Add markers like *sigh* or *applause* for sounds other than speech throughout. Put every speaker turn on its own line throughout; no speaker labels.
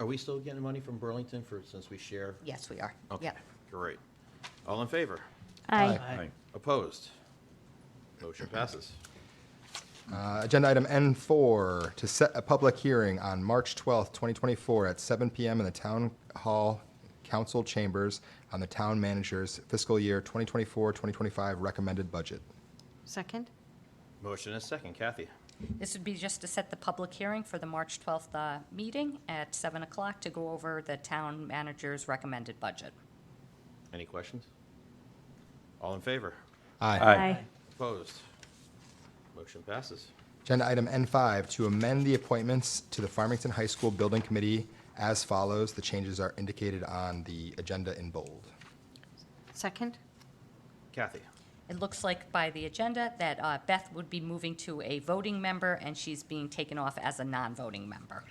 Are we still getting money from Burlington for, since we share?
Yes, we are.
Okay,
Yep.
great. All in favor?
Aye.
Aye.
Opposed? Motion passes.
Uh, Agenda item N4, to set a public hearing on March 12th, 2024, at 7 PM in the Town Hall Council Chambers on the Town Manager's fiscal year 2024-2025 recommended budget.
Second?
Motion and a second. Kathy?
This would be just to set the public hearing for the March 12th uh, meeting at 7 o'clock to go over the town manager's recommended budget.
Any questions? All in favor?
Aye.
Opposed? Motion passes.
Agenda item N5, to amend the appointments to the Farmington High School Building Committee as follows. The changes are indicated on the agenda in bold.
Second?
Kathy?
It looks like by the agenda that uh, Beth would be moving to a voting member, and she's being taken off as a non-voting member.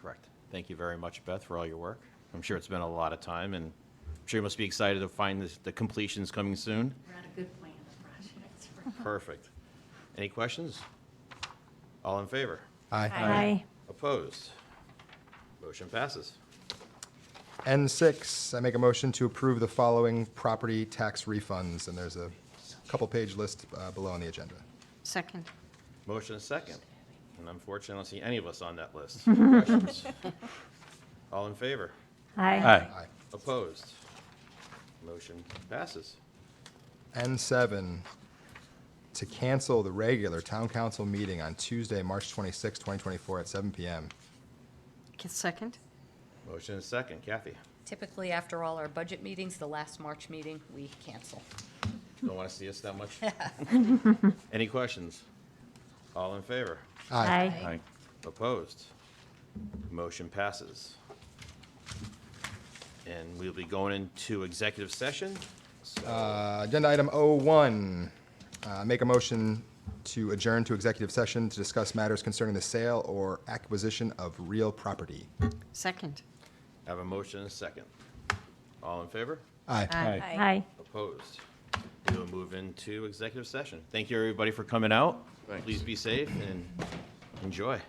Correct. Thank you very much, Beth, for all your work. I'm sure it's been a lot of time, and I'm sure you must be excited to find this- the completions coming soon.
We're on a good plan of projects.
Perfect. Any questions? All in favor?
Aye.
Opposed? Motion passes.
N6, I make a motion to approve the following property tax refunds, and there's a couple-page list uh, below on the agenda.
Second?
Motion is second. And unfortunately, I don't see any of us on that *laughs* list. Questions? All in favor?
Aye.
Aye.
Opposed? Motion passes.
N7, to cancel the regular town council meeting on Tuesday, March 26, 2024, at 7 PM.
K- Second?
Motion is second. Kathy?
Typically, after all our budget meetings, the last March meeting, we cancel.
Don't want to see us that much? *laughs* Any questions? All in favor?
Aye. Aye.
Opposed? Motion passes. And we'll be going into executive session. So
Uh, Agenda item O1, uh, make a motion to adjourn to executive session to discuss matters concerning the sale or acquisition of real property.
Second?
have a motion and a second. All in favor?
Aye.
Aye.
Opposed? We will move into executive session. Thank you, everybody, for coming out.
Thanks.
Please be safe and enjoy.